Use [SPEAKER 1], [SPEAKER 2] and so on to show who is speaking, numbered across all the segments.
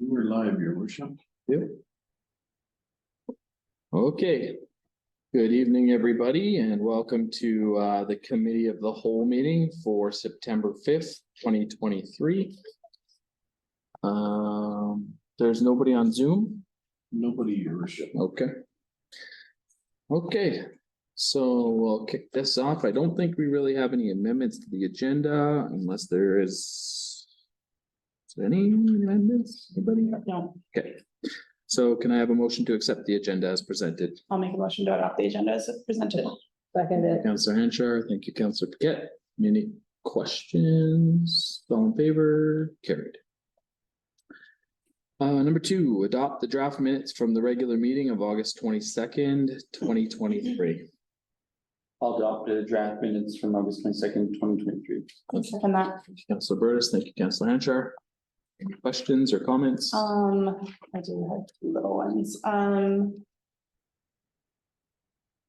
[SPEAKER 1] We're live, your worship.
[SPEAKER 2] Okay. Good evening, everybody, and welcome to uh, the Committee of the Whole meeting for September fifth, twenty twenty-three. Um, there's nobody on Zoom?
[SPEAKER 1] Nobody, your worship.
[SPEAKER 2] Okay. Okay, so we'll kick this off. I don't think we really have any amendments to the agenda unless there is is there any amendments, anybody?
[SPEAKER 3] No,
[SPEAKER 2] Okay. So can I have a motion to accept the agenda as presented?
[SPEAKER 3] I'll make a motion to adopt the agenda as presented. Seconded.
[SPEAKER 2] Counselor Henshaw, thank you, Counselor Paquette. Any questions? All in favor? Carried. Uh, number two, adopt the draft minutes from the regular meeting of August twenty-second, twenty twenty-three.
[SPEAKER 4] I'll adopt the draft minutes from August twenty second, twenty twenty three.
[SPEAKER 3] Second that,
[SPEAKER 2] Counselor Burtis, thank you, Counselor Henshaw. Any questions or comments?
[SPEAKER 3] um, I do have two little ones, um.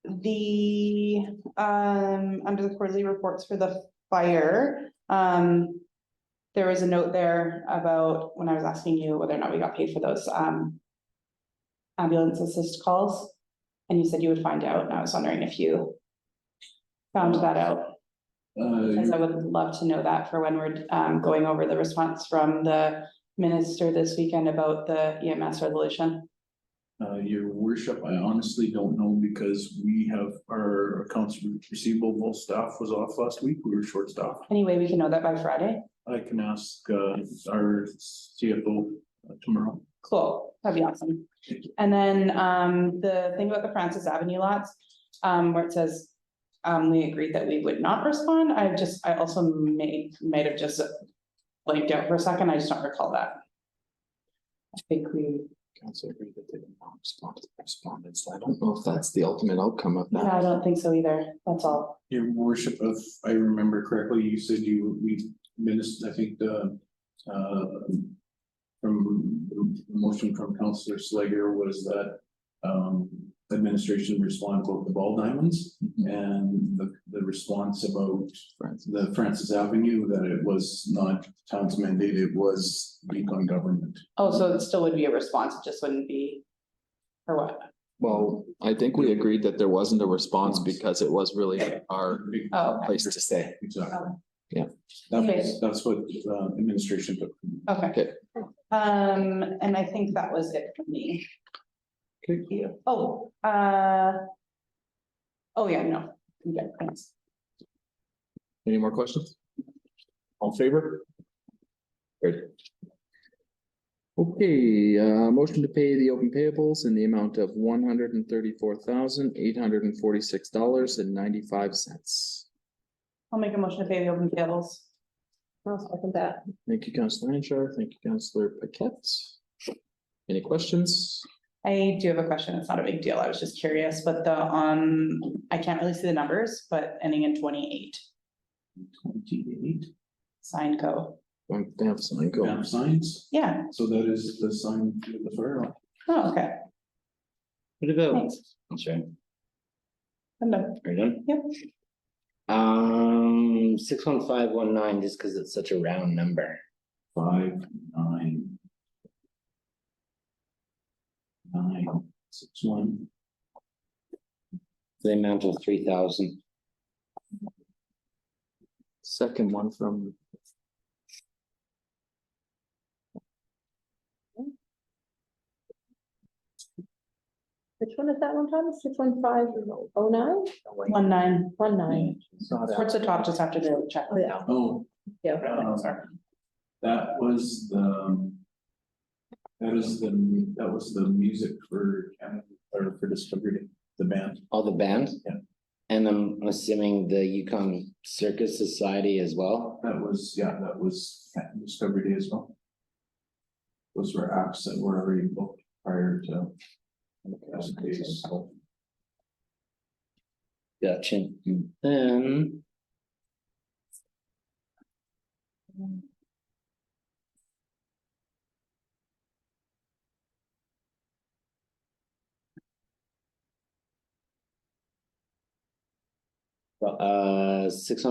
[SPEAKER 3] The, um, under the quarterly reports for the fire, um. There was a note there about when I was asking you whether or not we got paid for those, um. Ambulance assist calls, and you said you would find out, and I was wondering if you. Found that out. Because
[SPEAKER 1] Uh,
[SPEAKER 3] I would love to know that for when we're um going over the response from the minister this weekend about the EMS resolution.
[SPEAKER 1] uh, your worship, I honestly don't know because we have our accounts receivable staff was off last week. We were short staffed.
[SPEAKER 3] Anyway, we can know that by Friday.
[SPEAKER 1] I can ask, uh, our CFO uh, tomorrow.
[SPEAKER 3] Cool, that'd be awesome. And then um the thing about the Francis Avenue lots, um where it says. Um, we agreed that we would not respond. I just, I also may, might have just blanked out for a second. I just don't recall that. I think we,
[SPEAKER 2] Counselor agreed that they did not respond to the respondents. I don't know if that's the ultimate outcome of
[SPEAKER 3] no,
[SPEAKER 2] that.
[SPEAKER 3] I don't think so either. That's all.
[SPEAKER 1] Your worship, if I remember correctly, you said you, we missed, I think, the, uh, from, the motion from Counselor Slager was that, um, administration responded about the ball diamonds
[SPEAKER 2] Mhm.
[SPEAKER 1] and the, the response about
[SPEAKER 2] Francis.
[SPEAKER 1] the Francis Avenue, that it was not town's mandate, it was Yukon government.
[SPEAKER 3] Oh, so it still would be a response, it just wouldn't be, or what?
[SPEAKER 2] Well, I think we agreed that there wasn't a response because it was really our
[SPEAKER 3] Oh, okay.
[SPEAKER 2] place to say.
[SPEAKER 1] Exactly.
[SPEAKER 2] Yeah.
[SPEAKER 1] That's, that's what, uh, administration took.
[SPEAKER 3] okay.
[SPEAKER 2] Okay.
[SPEAKER 3] Um, and I think that was it for me.
[SPEAKER 2] Okay.
[SPEAKER 3] you. Oh, uh. Oh, yeah, no, yeah, thanks.
[SPEAKER 2] Any more questions? All in favor? Great. Okay, uh, motion to pay the open payables in the amount of one hundred and thirty-four thousand, eight hundred and forty-six dollars and ninety-five cents.
[SPEAKER 3] I'll make a motion to pay the open bills. I'll second that.
[SPEAKER 2] Thank you, Counselor Henshaw. Thank you, Counselor Paquette. Any questions?
[SPEAKER 3] I do have a question, it's not a big deal, I was just curious, but the, um, I can't really see the numbers, but ending in twenty-eight,
[SPEAKER 1] Twenty-eight,
[SPEAKER 3] sign go,
[SPEAKER 2] Don't they have something
[SPEAKER 1] Map
[SPEAKER 2] going.
[SPEAKER 1] signs,
[SPEAKER 3] yeah,
[SPEAKER 1] so that is the sign to the fire. alarm.
[SPEAKER 3] oh, okay,
[SPEAKER 2] What about?
[SPEAKER 3] thanks,
[SPEAKER 4] Okay,
[SPEAKER 3] I'm done.
[SPEAKER 4] are you done?
[SPEAKER 3] Yep.
[SPEAKER 4] Um, six one five one nine, just because it's such a round number.
[SPEAKER 1] Five, nine. Nine, six, one,
[SPEAKER 4] The amount of three thousand.
[SPEAKER 2] Second one from.
[SPEAKER 5] Which one is that one, Thomas? Six one five oh nine?
[SPEAKER 3] One nine,
[SPEAKER 5] One nine.
[SPEAKER 3] towards the top, just after the check.
[SPEAKER 5] Oh, yeah.
[SPEAKER 1] oh.
[SPEAKER 5] Yeah.
[SPEAKER 1] um, That was the. um, That is the, mu- that was the music for, Canada- or for Discovery, Day, the band.
[SPEAKER 4] All the bands?
[SPEAKER 1] Yeah.
[SPEAKER 4] And I'm assuming the Yukon Circus Society as well.
[SPEAKER 1] That was, yeah, that was Canada Discovery Day as well. Those were acts that were already booked prior to. as days, so.
[SPEAKER 4] Gotcha. And Then. Uh, six hundred